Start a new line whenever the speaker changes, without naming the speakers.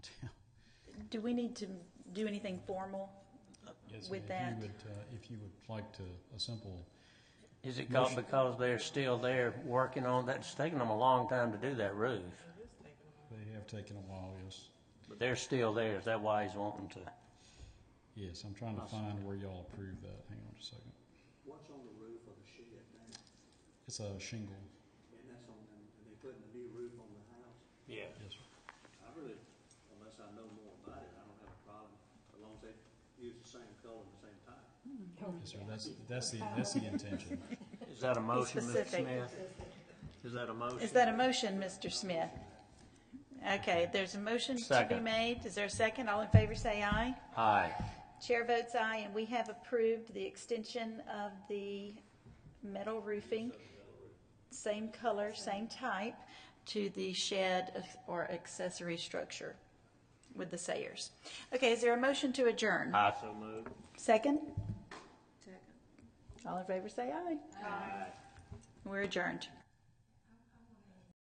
Do we need to do anything formal?
Yes,
With
ma'am.
that.
If you would, uh, if you would like to, a simple,
Is it called because they're still there working on that? It's taking them a long time to do that roof,
they have taken a while, yes.
but they're still there. Is that why he's wanting to?
Yes, I'm trying to find where y'all approved that. Hang on just a second.
What's on the roof of the shed now?
It's a shingle.
And that's on them, and they putting a new roof on the house.
Yeah.
Yes, sir.
I really, unless I know more about it, I don't have a problem, as long as they use the same color and the same type.
Yes, sir. That's, that's the, that's the intention.
Is that a motion, Mr.
specific.
Smith? Is that a motion?
Is that a motion, Mr. Smith? Okay, there's a motion to be
Second.
made. Is there a second? All in favor, say aye.
Aye.
Chair votes aye, and we have approved the extension of the metal roofing, same color, same type, to the shed or accessory structure with the Sayers. Okay, is there a motion to adjourn?
I so move.
Second? Second. All in favor, say aye. Aye. We're adjourned.